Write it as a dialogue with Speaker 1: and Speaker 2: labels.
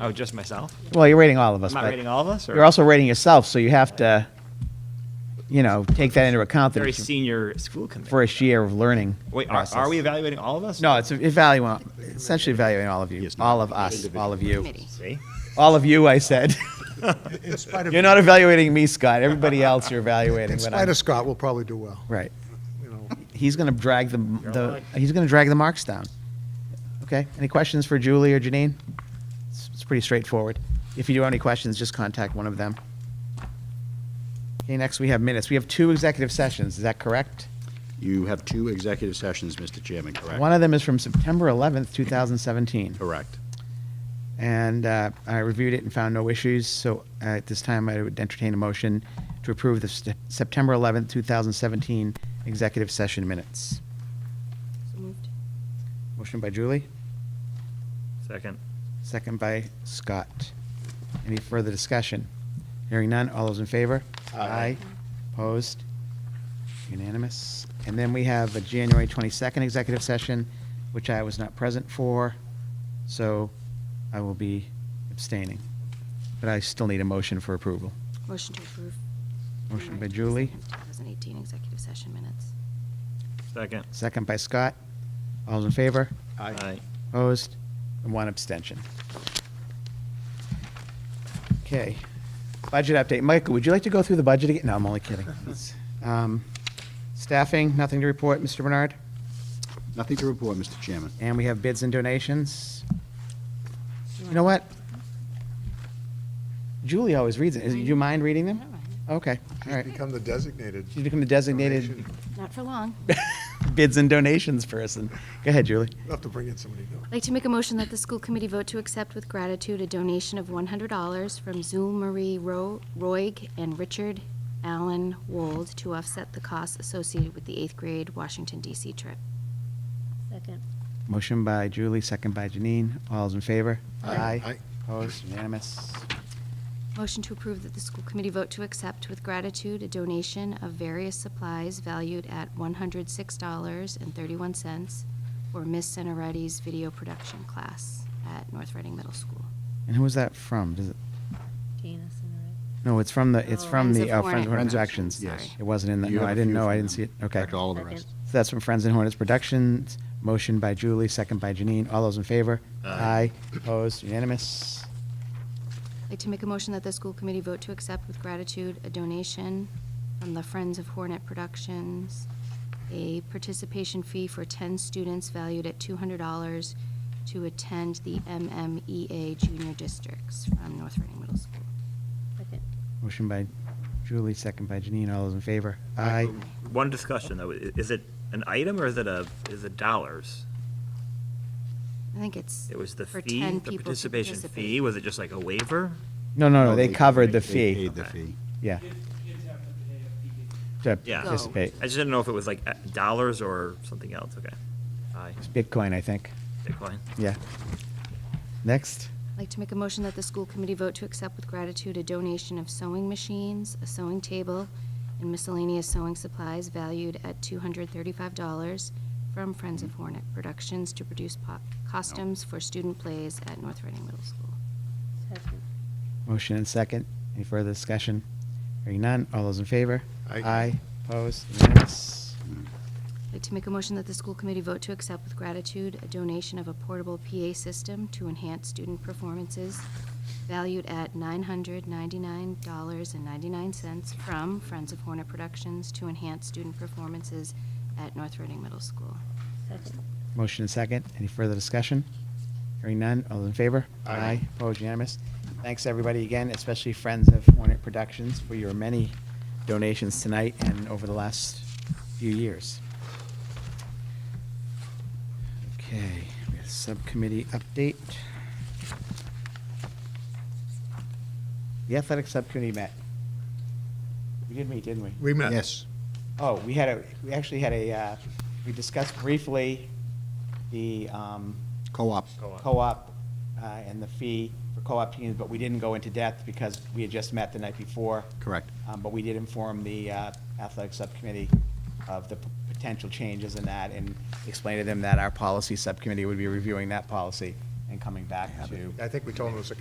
Speaker 1: Oh, just myself?
Speaker 2: Well, you're rating all of us.
Speaker 1: I'm not
Speaker 2: but
Speaker 1: rating all of us, or?
Speaker 2: You're also rating yourself, so you have to, you know, take that into account that
Speaker 1: Very
Speaker 2: it's your
Speaker 1: senior school committee.
Speaker 2: first year of learning.
Speaker 1: Wait, are,
Speaker 2: process.
Speaker 1: are we evaluating all of us?
Speaker 2: No, it's evaluating, essentially evaluating all of you, all of us, all of you.
Speaker 3: Committee.
Speaker 1: See?
Speaker 2: All of you, I said.
Speaker 4: In spite of,
Speaker 2: You're not evaluating me, Scott. Everybody else you're evaluating.
Speaker 4: in
Speaker 2: but
Speaker 4: spite
Speaker 2: I'm-
Speaker 4: of Scott, we'll probably do well,
Speaker 2: Right.
Speaker 4: you know.
Speaker 2: He's going to drag the, the, he's going to drag the marks down. Okay? Any questions for Julie or Janine? It's, it's pretty straightforward. If you do have any questions, just contact one of them. Okay, next we have minutes. We have two executive sessions. Is that correct?
Speaker 5: You have two executive sessions, Mr. Chairman, correct?
Speaker 2: One of them is from September 11th, 2017.
Speaker 5: Correct.
Speaker 2: And uh, I reviewed it and found no issues, so uh, at this time, I would entertain a motion to approve the Sep- September 11th, 2017 executive session minutes. Motion by Julie,
Speaker 1: Second.
Speaker 2: second by Scott. Any further discussion? Hearing none, all those in favor? Aye. Opposed? Unanimous. And then we have a January 22nd executive session, which I was not present for, so I will be abstaining. But I still need a motion for approval.
Speaker 3: Motion to approve.
Speaker 2: Motion by Julie,
Speaker 3: 2018 executive session minutes.
Speaker 1: Second.
Speaker 2: second by Scott. All those in favor?
Speaker 1: Aye.
Speaker 2: Opposed? And one abstention. Okay. Budget update. Michael, would you like to go through the budget again? No, I'm only kidding. It's, um, Staffing, nothing to report, Mr. Bernard?
Speaker 5: Nothing to report, Mr. Chairman.
Speaker 2: And we have bids and donations. You know what? Julie always reads it. Is- Do you mind reading them? Okay, all right.
Speaker 4: Become the designated.
Speaker 2: She's become the designated
Speaker 4: donation.
Speaker 3: Not for long.
Speaker 2: bids and donations person. Go ahead, Julie.
Speaker 4: We'll have to bring in somebody new.
Speaker 3: I'd like to make a motion that the school committee vote to accept with gratitude a donation of $100 from Zul Marie Ro- Roig and Richard Allen Wold to offset the costs associated with the eighth grade Washington DC trip.
Speaker 6: Second.
Speaker 2: Motion by Julie, second by Janine. All's in favor?
Speaker 4: Aye. Aye.
Speaker 2: Opposed, unanimous.
Speaker 3: Motion to approve that the school committee vote to accept with gratitude a donation of various supplies valued at $106.31 for Miss Senoretti's video production class at North Reading Middle School.
Speaker 2: And who was that from? Does it,
Speaker 6: Gina Sinardi.
Speaker 2: no, it's from the, it's
Speaker 6: Oh,
Speaker 2: from
Speaker 3: Friends
Speaker 2: the,
Speaker 3: of
Speaker 2: oh, Friends of
Speaker 3: Hornet
Speaker 2: Hornets
Speaker 3: Productions,
Speaker 2: Actions.
Speaker 3: sorry.
Speaker 2: It wasn't in that,
Speaker 5: You
Speaker 2: no,
Speaker 5: have
Speaker 2: I
Speaker 5: a
Speaker 2: didn't
Speaker 5: few
Speaker 2: know, I
Speaker 5: from
Speaker 2: didn't
Speaker 5: them.
Speaker 2: see it. Okay.
Speaker 5: Correct all of the
Speaker 6: Second.
Speaker 5: rest.
Speaker 2: So that's from Friends and Hornets Productions. Motion by Julie, second by Janine. All those in favor? Aye. Opposed, unanimous.
Speaker 3: I'd like to make a motion that the school committee vote to accept with gratitude a donation from the Friends of Hornet Productions, a participation fee for 10 students valued at $200 to attend the MMEA Junior Districts from North Reading Middle School.
Speaker 6: Second.
Speaker 2: Motion by Julie, second by Janine. All those in favor? Aye.
Speaker 7: One discussion, though, I- is it an item or is it a, is it dollars?
Speaker 3: I think it's.
Speaker 7: It was the
Speaker 3: for
Speaker 7: fee,
Speaker 3: 10
Speaker 7: the
Speaker 3: people to
Speaker 7: participation
Speaker 3: participate.
Speaker 7: fee, was it just like a waiver?
Speaker 2: No, no, no, they covered the
Speaker 5: They
Speaker 2: fee.
Speaker 5: paid the fee.
Speaker 2: Yeah,
Speaker 8: Kids kids have to pay a fee.
Speaker 2: to
Speaker 7: Yeah. Go.
Speaker 2: participate.
Speaker 7: I just didn't know if it was like uh, dollars or something else, okay. Aye,
Speaker 2: Bitcoin, I think.
Speaker 7: Bitcoin.
Speaker 2: Yeah. Next.
Speaker 3: I'd like to make a motion that the school committee vote to accept with gratitude a donation of sewing machines, a sewing table, and miscellaneous sewing supplies valued at $235 from Friends of Hornet Productions to produce po- costumes for student plays at North Reading Middle School.
Speaker 6: Second.
Speaker 2: Motion and second. Any further discussion? Hearing none. All those in favor?
Speaker 4: Aye.
Speaker 2: Opposed? Unanimous.
Speaker 3: I'd like to make a motion that the school committee vote to accept with gratitude a donation of a portable PA system to enhance student performances valued at $999.99 from Friends of Hornet Productions to enhance student performances at North Reading Middle School.
Speaker 6: Second.
Speaker 2: Motion and second. Any further discussion? Hearing none. All those in favor? Aye. Opposed? Unanimous. Thanks, everybody, again, especially Friends of Hornet Productions for your many donations tonight and over the last few years. Okay, we have subcommittee update. The athletic subcommittee met. We did meet, didn't we?
Speaker 4: We met.
Speaker 5: Yes.
Speaker 2: Oh, we had a, we actually had a, uh, we discussed briefly the um,
Speaker 5: Co-op.
Speaker 2: co-op uh, and the fee for co-op teams, but we didn't go into depth because we had just met the night before.
Speaker 5: Correct.
Speaker 2: Um, But we did inform the uh, athletic subcommittee of the p- potential changes in that and explain to them that our policy subcommittee would be reviewing that policy and coming back to.
Speaker 4: I think we told him it was a